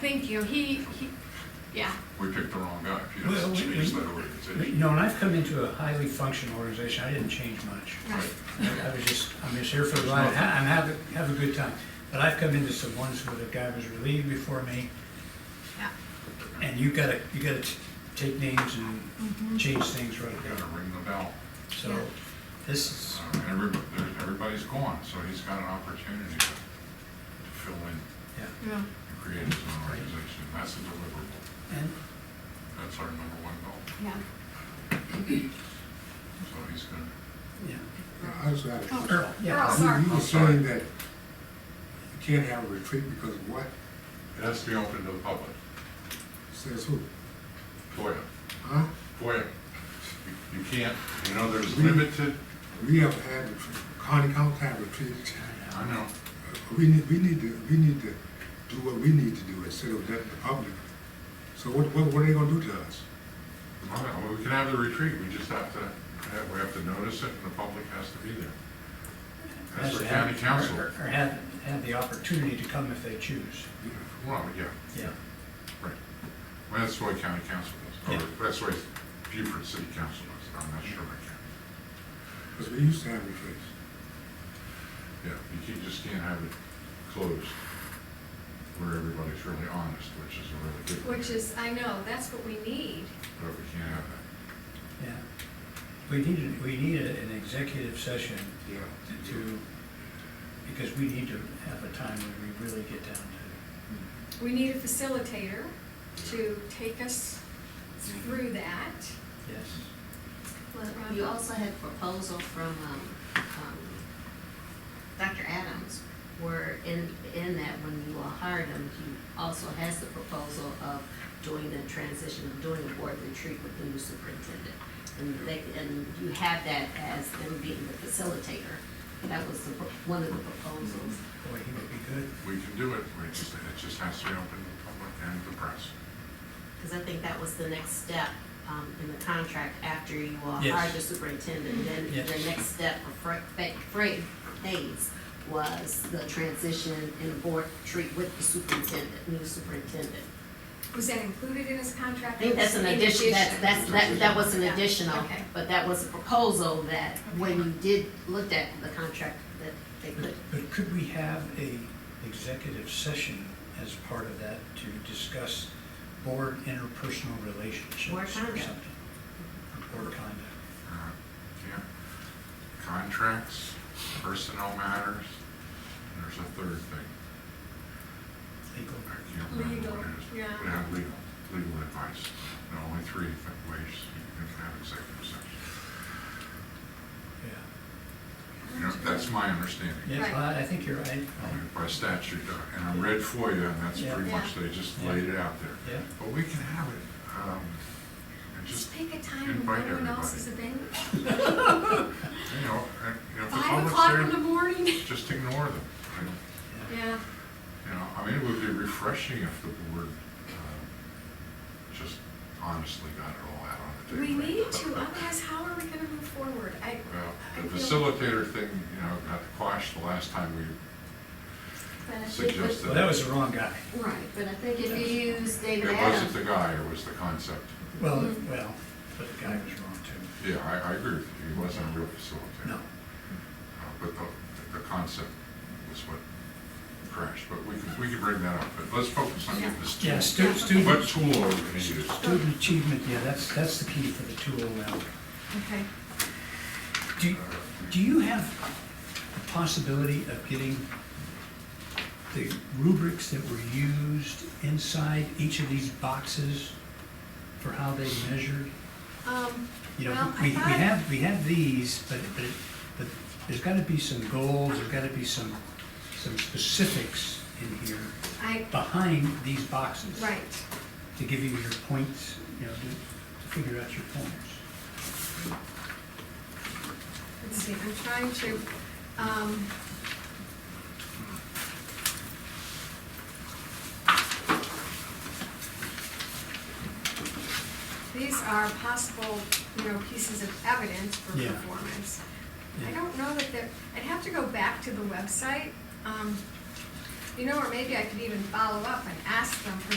Thank you, he, he, yeah, We picked the wrong guy, if you Well, don't we- change that You organization. know, and I've come into a highly functional organization, I didn't change much. right, I I was just, I'm just here for the ride, ha- and have, a- have a good time. But I've come into some ones where the guy was relieved before me, yeah. and you gotta, you gotta t- take names Mm-hmm. and change things right Gotta away. ring the bell. So, this is, Uh, and Everybody, there- everybody's gone, so he's got an opportunity to to fill in yeah, Yeah. and create his own organization. That's a deliverable. and, That's our number one goal. Yeah. So he's gonna, yeah. I just got a Oh, question. Earl, yeah, Earl. You- sorry. You Oh, were sorry. saying that you can't have a retreat because of what? it has to be open to the public. Says who? FOIA, Huh? FOIA. You- You can't, you know, there's limited, We have had, retreat- county council had retreats. uh, I know, We need, we need to, we need to do what we need to do instead of letting the public. So what, what, what are they gonna do to us? All right, well, we can have the retreat, we just have to, have- we have to notice it and the public has to be there. That's has for to county have- council. Or or have, have the opportunity to come if they choose, Well, yeah, yeah. right. Well, that's the way county council does, Yeah. or that's the way Beaufort City Council does, it. I'm not sure I can. Because we used to have retreats. Yeah, you can- just can't have it closed where everybody's really honest, which is a really good. thing, Which is, I know, that's what we need. But we can't have that. Yeah. We need, we need a- an executive session Yeah. to- to, because we need to have a time when we really get down to, Hmm. We need a facilitator to take us through that. yes. Well, you also had a proposal from, um, um, Dr. Adams, where in, in that, when you all hired him, he also has the proposal of doing the transition, of doing a board retreat with the new superintendent. And they, and you have that as them being the facilitator. That was the, pro- one of the proposals. Boy, he would be good. We can do it, we just, it just has to be open to the public and the press. Because I think that was the next step um, in the contract after you all Yes. hired the superintendent. Then Yes. the next step for Fre- Fa- Fred Hayes was the transition and board treat with the superintendent, new superintendent. Was that included in his I contract? think that's an In addition, that's, that's, that, that was an Yeah, additional, okay. but that was a proposal that when you did, looked at the contract, that they But- put. But could we have a executive session as part of that to discuss board interpersonal relationships or Board something? conduct. Or Board conduct. Uh, Yeah, contracts, personnel matters, and there's a third thing. legal. I can't remember what it is. Legal, yeah. We have legal, legal advice. There are only three different ways you can have executive session. Yeah. You know, that's my understanding. Yeah, Right. well, I think you're right. I mean, By statute, uh, and I read for you, and that's Yeah. pretty much, Yeah. they just Yeah. laid it out there. Yeah. But we can have it, um, and just, Just pick a time invite when no one else is everybody. available. you know, and, you know, if the Five o'clock in public's the there, morning. just ignore them. I don't- Yeah, You know, I mean, it would be refreshing if the board um, just honestly got it all out on the we table. need to, otherwise how are we gonna move forward? I. Well, I the feel- facilitator thing, you know, got quashed the last time we, But I think Suggest Well, that was the wrong guy. if- Right, but I think if you use it David wasn't the Adams, guy, it was the concept. Well, Hmm. well, but the guy was wrong too. Yeah, I, I agree with you, he wasn't a real facilitator. No. Uh, But the, the concept was what crashed, but we can, we can bring that up, but let's focus on getting this tool. Yeah, stu- What student, tool are we gonna use? student achievement, yeah, that's, that's the key for the tool now. Okay. Do, do you have a possibility of getting the rubrics that were used inside each of these boxes for how they measured? Um, You Well, know, I we, we thought- have, we have these, but, but, it- but there's gotta be some goals, there's gotta be some, some specifics in here I, behind these boxes. right, To give you your points, you know, to, to figure out your points. let's see, I'm trying to, um, These are possible, you know, pieces of evidence for Yeah. performance. I Yeah. don't know that they're, I'd have to go back to the website, um, you know, or maybe I could even follow up and ask them for